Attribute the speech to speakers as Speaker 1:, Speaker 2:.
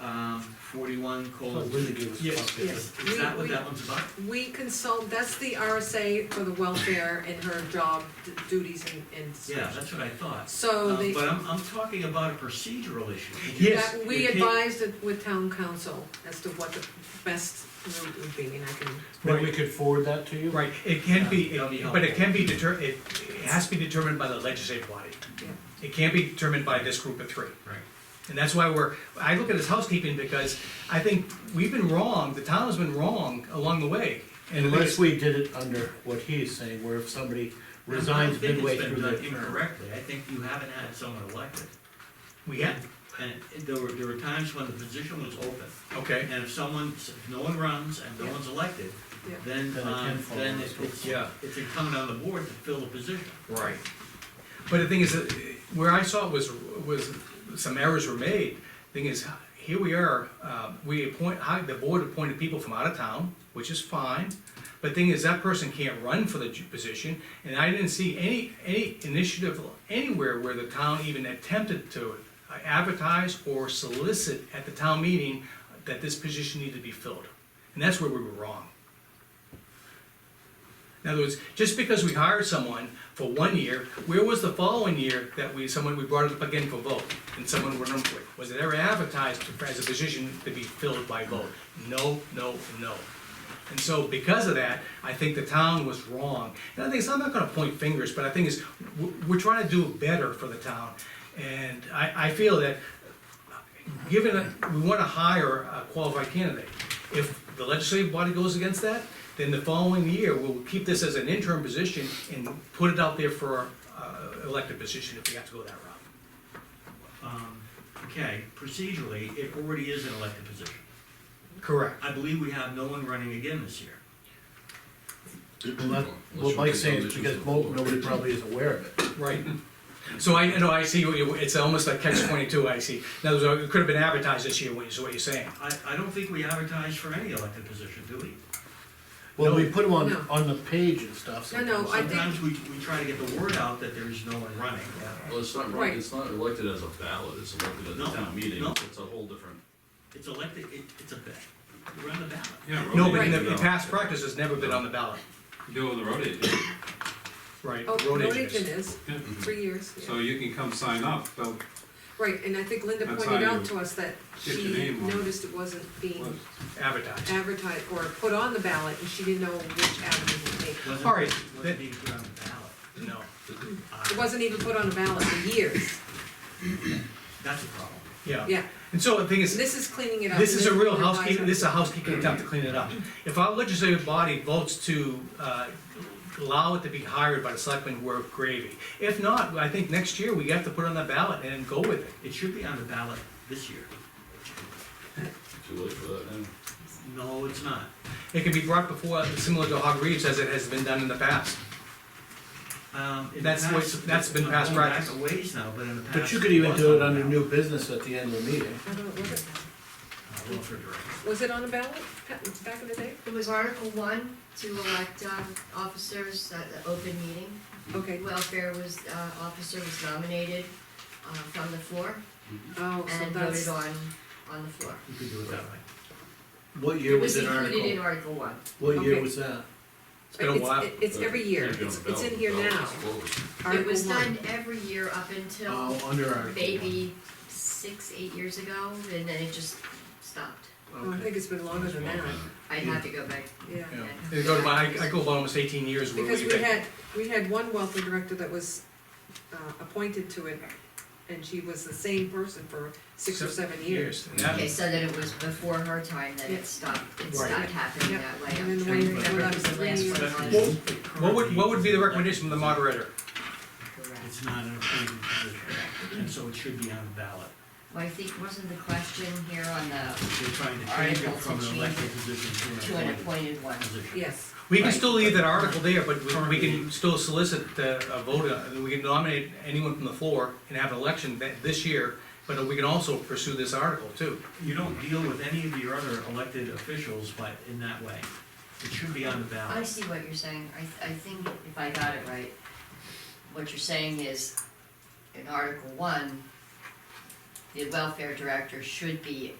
Speaker 1: um, forty-one
Speaker 2: Oh,
Speaker 1: colon.
Speaker 2: really good.
Speaker 1: Yes,
Speaker 3: Yes.
Speaker 1: is that what
Speaker 3: We-
Speaker 1: that one's about?
Speaker 3: We consult, that's the RSA for the welfare and her job d- duties and, and. such.
Speaker 1: Yeah, that's what I thought.
Speaker 3: So
Speaker 1: Um,
Speaker 3: the,
Speaker 1: But I'm, I'm talking about a procedural issue.
Speaker 2: Yes,
Speaker 3: that
Speaker 1: you
Speaker 3: we
Speaker 1: can't-
Speaker 3: advised it with town council as to what the best route would be, and I can,
Speaker 2: Maybe we could forward that to you?
Speaker 4: Right, it can be,
Speaker 1: That'll be
Speaker 4: but it can be deter, it, it has to be determined by the legislative body.
Speaker 3: yeah.
Speaker 4: It can't be determined by this group of three.
Speaker 1: Right.
Speaker 4: And that's why we're, I look at this housekeeping because I think we've been wrong, the town has been wrong along the way. And I think
Speaker 2: Unless
Speaker 4: it's-
Speaker 2: we did it under what he's saying, where if somebody resigns midway through
Speaker 1: I
Speaker 2: their
Speaker 1: don't think it's been done
Speaker 2: term.
Speaker 1: incorrectly, I think you haven't had someone elected.
Speaker 4: we had,
Speaker 1: And it- there were, there were times when the position was open,
Speaker 4: okay,
Speaker 1: and if someone, if no one runs and no
Speaker 3: Yeah.
Speaker 1: one's elected,
Speaker 3: Yeah.
Speaker 1: then,
Speaker 2: Then it can
Speaker 1: um,
Speaker 2: fall on
Speaker 1: then
Speaker 2: the
Speaker 1: it-
Speaker 2: school.
Speaker 1: it's,
Speaker 4: Yeah.
Speaker 1: it's incumbent on the board to fill the position.
Speaker 4: right. But the thing is, that where I saw it was, was some errors were made. Thing is, here we are, uh, we appoint, hi- the board appointed people from out of town, which is fine. But thing is, that person can't run for the ju- position, and I didn't see any, any initiative anywhere where the town even attempted to advertise or solicit at the town meeting that this position needed to be filled. And that's where we were wrong. In other words, just because we hired someone for one year, where was the following year that we, someone, we brought it up again for vote, and someone went on for it? Was it ever advertised as a position to be filled by vote? No, no, no. And so because of that, I think the town was wrong. And I think, so I'm not gonna point fingers, but I think is, we're, we're trying to do better for the town. And I, I feel that given that we wanna hire a qualified candidate, if the legislative body goes against that, then the following year, we'll keep this as an interim position and put it out there for, uh, elected position if we have to go that route.
Speaker 1: Um, Okay, procedurally, it already is an elected position.
Speaker 4: Correct.
Speaker 1: I believe we have no one running again this year.
Speaker 2: Well, that- What Mike's saying is because mo- nobody probably is aware of it.
Speaker 4: Right. So I, no, I see, what you- it's almost like catch twenty-two, I see. In other words, it could have been advertised this year, is what you're saying.
Speaker 1: I, I don't think we advertise for any elected position, do we?
Speaker 2: Well, we put them on,
Speaker 3: No.
Speaker 2: on the page and stuff.
Speaker 3: No, no,
Speaker 2: sometimes.
Speaker 3: I think-
Speaker 1: Sometimes we, we try to get the word out that there is no one running.
Speaker 5: Well, it's not,
Speaker 3: Right.
Speaker 5: it's not elected as a ballot, it's elected as
Speaker 1: No,
Speaker 5: a town meeting,
Speaker 1: no.
Speaker 5: it's a whole different.
Speaker 1: It's elected, it, it's a, ba- we're on the ballot.
Speaker 6: Yeah,
Speaker 4: No,
Speaker 5: Road
Speaker 4: but in
Speaker 5: agent,
Speaker 4: the, in
Speaker 5: no.
Speaker 4: past practice, it's never been on the ballot.
Speaker 6: You do it with the road agent,
Speaker 4: Right.
Speaker 3: Oh,
Speaker 4: road
Speaker 3: road
Speaker 4: agents.
Speaker 3: agent is,
Speaker 6: Yeah.
Speaker 3: three years, yeah.
Speaker 6: Mm-hmm. so you can come sign up, but
Speaker 3: Right, and I think Linda
Speaker 6: That's
Speaker 3: pointed
Speaker 6: how
Speaker 3: out
Speaker 6: you
Speaker 3: to us that
Speaker 6: get your
Speaker 3: she
Speaker 6: name on it.
Speaker 3: noticed it wasn't being
Speaker 4: Advertised.
Speaker 3: advertised or put on the ballot, and she didn't know which avenue to take.
Speaker 1: Wasn't-
Speaker 4: All right, that-
Speaker 1: Wasn't being put on the
Speaker 4: No.
Speaker 1: ballot. Uh,
Speaker 3: It wasn't even put on the ballot for years,
Speaker 1: That's a problem.
Speaker 4: Yeah.
Speaker 3: yeah.
Speaker 4: And so the thing is,
Speaker 3: This is cleaning it up.
Speaker 4: This is a real
Speaker 3: Linda advised
Speaker 4: housekeeping,
Speaker 3: her.
Speaker 4: this is a housekeeping attempt to clean it up. If our legislative body votes to, uh, allow it to be hired by the selectmen, we're gravy. If not, I think next year we have to put it on the ballot and go with it.
Speaker 1: It should be on the ballot this year.
Speaker 5: Too late for that now.
Speaker 1: No, it's not.
Speaker 4: It can be brought before, similar to Hog Reeves as it has been done in the past.
Speaker 1: Um, in the
Speaker 4: That's what-
Speaker 1: past-
Speaker 4: that's been
Speaker 1: I'm
Speaker 4: past
Speaker 1: going
Speaker 4: practice.
Speaker 1: Back a ways now, but in the past.
Speaker 2: But you could even
Speaker 1: was
Speaker 2: do it
Speaker 1: on the
Speaker 2: under
Speaker 1: ballot.
Speaker 2: new business at the end of the meeting.
Speaker 3: I don't know, was it?
Speaker 1: Uh, Welfare Director.
Speaker 3: Was it on the ballot pa- back in the day?
Speaker 7: It was Article one to elect um, officers at the open meeting.
Speaker 3: Okay,
Speaker 7: Welfare was, uh, officer was nominated uh, from the floor
Speaker 3: oh, so
Speaker 7: and
Speaker 3: that's,
Speaker 7: voted on, on the floor.
Speaker 1: You could do it that way.
Speaker 2: What year
Speaker 7: It
Speaker 2: was
Speaker 7: was
Speaker 2: it
Speaker 7: included in
Speaker 2: article?
Speaker 7: Article one.
Speaker 2: What year
Speaker 3: Okay.
Speaker 2: was that?
Speaker 4: It's been a while.
Speaker 3: it's, it's every year, it's, it's in here now.
Speaker 7: It was
Speaker 3: Article one.
Speaker 7: done every year up until
Speaker 2: Oh, under article.
Speaker 7: maybe six, eight years ago, and then it just stopped.
Speaker 2: one.
Speaker 3: Oh, I
Speaker 2: Okay.
Speaker 3: think it's been longer than that,
Speaker 7: I had to go back.
Speaker 3: yeah.
Speaker 2: Yeah.
Speaker 7: and-
Speaker 4: It go to my, I go about almost eighteen years where
Speaker 3: Because
Speaker 4: we've
Speaker 3: we
Speaker 4: been.
Speaker 3: had, we had one welfare director that was, uh, appointed to it, and she was the same person for six or seven years.
Speaker 4: And that-
Speaker 7: Okay, so then it was before her time that
Speaker 3: Yeah.
Speaker 7: it stopped, it
Speaker 2: Right.
Speaker 7: stopped happening
Speaker 3: Yeah.
Speaker 7: that
Speaker 3: And
Speaker 7: way. I'm
Speaker 3: then
Speaker 7: trying to
Speaker 3: when-
Speaker 7: remember
Speaker 3: when I
Speaker 7: if it
Speaker 3: was
Speaker 7: the last
Speaker 3: three
Speaker 7: one
Speaker 1: But
Speaker 7: on
Speaker 1: it's
Speaker 7: the-
Speaker 1: the
Speaker 4: What would,
Speaker 1: current-
Speaker 4: what would be the recommendation from the moderator?
Speaker 7: Correct.
Speaker 1: It's not an appointed position, and so it should be on the ballot.
Speaker 7: Well, I think, wasn't the question here on the,
Speaker 1: They're trying to change it
Speaker 7: Article
Speaker 1: from an
Speaker 7: to
Speaker 1: elected
Speaker 7: change
Speaker 1: position to
Speaker 7: to an
Speaker 1: an appointed
Speaker 7: appointed one?
Speaker 1: position.
Speaker 3: Yes,
Speaker 4: We can
Speaker 7: Right.
Speaker 4: still leave that article there, but we- we can still solicit uh, a vote, uh, we can nominate anyone from the floor and have an election that, this year, but we can also pursue this article too.
Speaker 1: You don't deal with any of your other elected officials by, in that way. It should be on the
Speaker 7: I
Speaker 1: ballot.
Speaker 7: see what you're saying, I, th- I think if I got it right, what you're saying is, in Article One, the welfare director should be